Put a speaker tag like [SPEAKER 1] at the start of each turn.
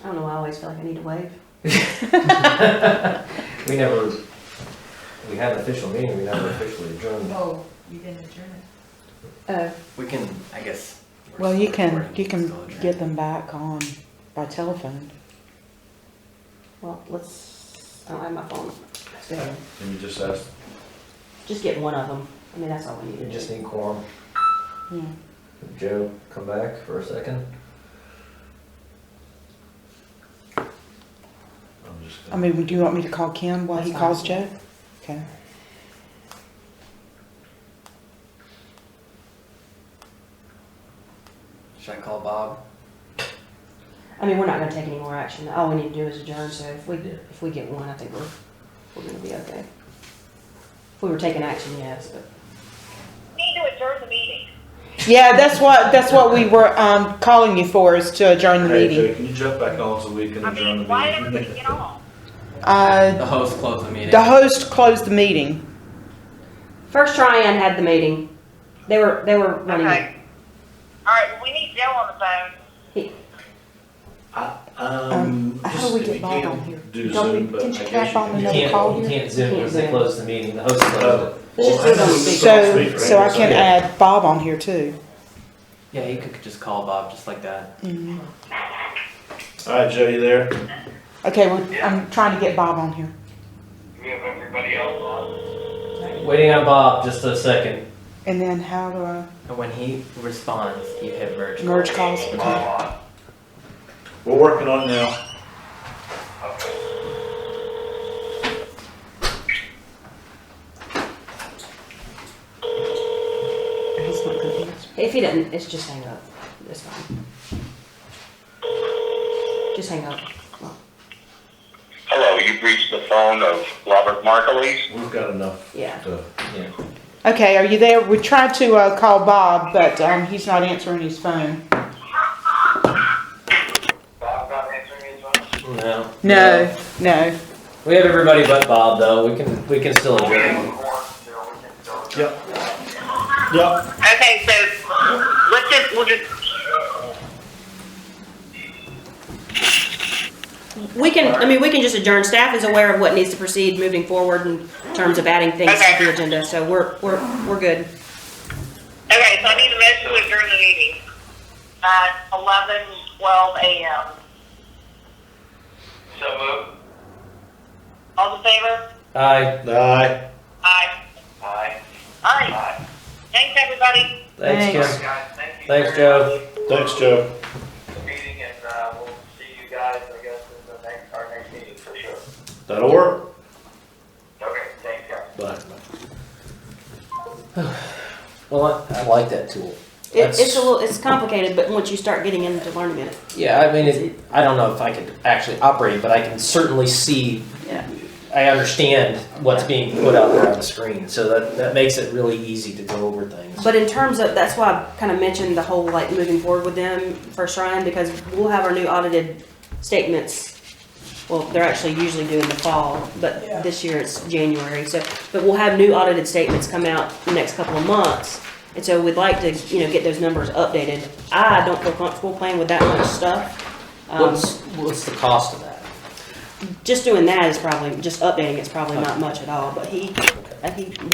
[SPEAKER 1] I don't know, I always feel like I need to wave.
[SPEAKER 2] We never, we had an official meeting, we never officially adjourned.
[SPEAKER 3] Oh, you didn't adjourn it.
[SPEAKER 4] Uh,
[SPEAKER 5] We can, I guess. we're
[SPEAKER 4] well, you
[SPEAKER 5] still
[SPEAKER 4] can,
[SPEAKER 5] recording,
[SPEAKER 4] you can
[SPEAKER 5] still adjourned.
[SPEAKER 4] get them back on by telephone.
[SPEAKER 1] Well, let's, I don't have my phone.
[SPEAKER 4] so.
[SPEAKER 6] Can you just ask,
[SPEAKER 1] Just get one of them. I mean, that's all we need
[SPEAKER 2] You
[SPEAKER 1] to
[SPEAKER 2] just
[SPEAKER 1] do.
[SPEAKER 2] need quorum.
[SPEAKER 4] Yeah.
[SPEAKER 2] Joe, come back for a second.
[SPEAKER 6] I'm just,
[SPEAKER 4] I mean, do you want me to call Kim while he
[SPEAKER 1] That's
[SPEAKER 4] calls
[SPEAKER 1] fine.
[SPEAKER 4] Joe? Okay.
[SPEAKER 5] Should I call Bob?
[SPEAKER 1] I mean, we're not gonna take any more action. All we need to do is adjourn, so if we, if we get one, I think we're, we're gonna be okay. If we were taking action, yes, but.
[SPEAKER 7] need to adjourn the meeting.
[SPEAKER 4] Yeah, that's what, that's what we were, um, calling you for is to adjourn the
[SPEAKER 6] hey, Jay,
[SPEAKER 4] meeting.
[SPEAKER 6] can you jump back on so we can
[SPEAKER 7] I
[SPEAKER 6] adjourn
[SPEAKER 7] mean, why did
[SPEAKER 6] the
[SPEAKER 7] everybody
[SPEAKER 6] meeting?
[SPEAKER 7] get on?
[SPEAKER 4] Uh,
[SPEAKER 5] The host closed the meeting.
[SPEAKER 4] the host closed the meeting.
[SPEAKER 1] First Tryon had the meeting. They were, they were running it.
[SPEAKER 7] Okay. All right, well, we need Joe on the phone.
[SPEAKER 6] I-
[SPEAKER 4] Um,
[SPEAKER 6] Um,
[SPEAKER 4] how do
[SPEAKER 6] just
[SPEAKER 4] we
[SPEAKER 6] if
[SPEAKER 4] get
[SPEAKER 6] you
[SPEAKER 4] Bob on
[SPEAKER 6] can
[SPEAKER 4] here?
[SPEAKER 6] Do
[SPEAKER 4] Don't we-
[SPEAKER 6] Zoom, but I
[SPEAKER 4] can't
[SPEAKER 6] guess
[SPEAKER 4] you
[SPEAKER 6] you
[SPEAKER 4] clap on
[SPEAKER 2] You
[SPEAKER 4] Another
[SPEAKER 6] can.
[SPEAKER 2] can't,
[SPEAKER 4] call
[SPEAKER 2] you
[SPEAKER 4] here?
[SPEAKER 2] can't zoom because they
[SPEAKER 1] Can't zoom.
[SPEAKER 2] closed the meeting, the host closed it.
[SPEAKER 1] Let's just put it on speaker.
[SPEAKER 4] So, so I can add Bob on here too.
[SPEAKER 5] Yeah, you could just call Bob just like that.
[SPEAKER 6] All right, Joe, you there?
[SPEAKER 4] Okay, we're, I'm trying to get Bob on here.
[SPEAKER 7] We have everybody else on.
[SPEAKER 2] Waiting on Bob, just a second.
[SPEAKER 4] And then how do I
[SPEAKER 5] And when he responds, you hit merge. call.
[SPEAKER 4] merge calls? Okay.
[SPEAKER 6] We're working on it now.
[SPEAKER 4] He's not gonna answer.
[SPEAKER 1] If he doesn't, it's just hang up. It's fine. Just hang up. Well,
[SPEAKER 8] Hello, you've reached the phone of Robert Markleese.
[SPEAKER 6] We've got enough
[SPEAKER 1] Yeah.
[SPEAKER 6] to,
[SPEAKER 4] Okay, are you there? We tried to, uh, call Bob, but, um, he's not answering his phone.
[SPEAKER 7] Bob, not answering his phone.
[SPEAKER 2] No.
[SPEAKER 4] No, no.
[SPEAKER 2] We have everybody but Bob though, we can, we can still adjourn.
[SPEAKER 6] yep. Yep,
[SPEAKER 7] Okay, so let's just, we'll just
[SPEAKER 1] We can, I mean, we can just adjourn. Staff is aware of what needs to proceed moving forward in terms of adding things to the agenda, so we're, we're, we're good.
[SPEAKER 7] Okay, so I need a motion to adjourn the meeting at eleven twelve AM. So moved. All in favor?
[SPEAKER 2] Aye,
[SPEAKER 6] aye.
[SPEAKER 7] Aye. Aye. Aye. Thanks, everybody.
[SPEAKER 2] thanks
[SPEAKER 4] Thanks.
[SPEAKER 2] Kim.
[SPEAKER 7] Guys, thank you.
[SPEAKER 2] Thanks, Joe.
[SPEAKER 6] Thanks, Joe.
[SPEAKER 7] Meeting and, uh, we'll see you guys, I guess, in the next, our next meeting for sure.
[SPEAKER 6] That'll work.
[SPEAKER 7] Okay, thanks, guys.
[SPEAKER 6] Bye.
[SPEAKER 2] Well, I I like that tool.
[SPEAKER 1] It, it's
[SPEAKER 2] That's-
[SPEAKER 1] a little, it's complicated, but once you start getting into learning it,
[SPEAKER 2] Yeah, I mean, it, I don't know if I could actually operate, it, but I can certainly see.
[SPEAKER 1] Yeah.
[SPEAKER 2] I understand what's being put out there on the screen, so that, that makes it really easy to go over things.
[SPEAKER 1] But in terms of, that's why I kind of mentioned the whole like moving forward with them for Shrine because we'll have our new audited statements. Well, they're actually usually due in the fall, but this year it's January. So, but we'll have new audited statements come out the next couple of months. And so we'd like to, you know, get those numbers updated. I don't feel comfortable playing with that much stuff. Um,
[SPEAKER 2] What's, what's the cost of that?
[SPEAKER 1] just doing that is probably, just updating it's probably not much at all, but he, I think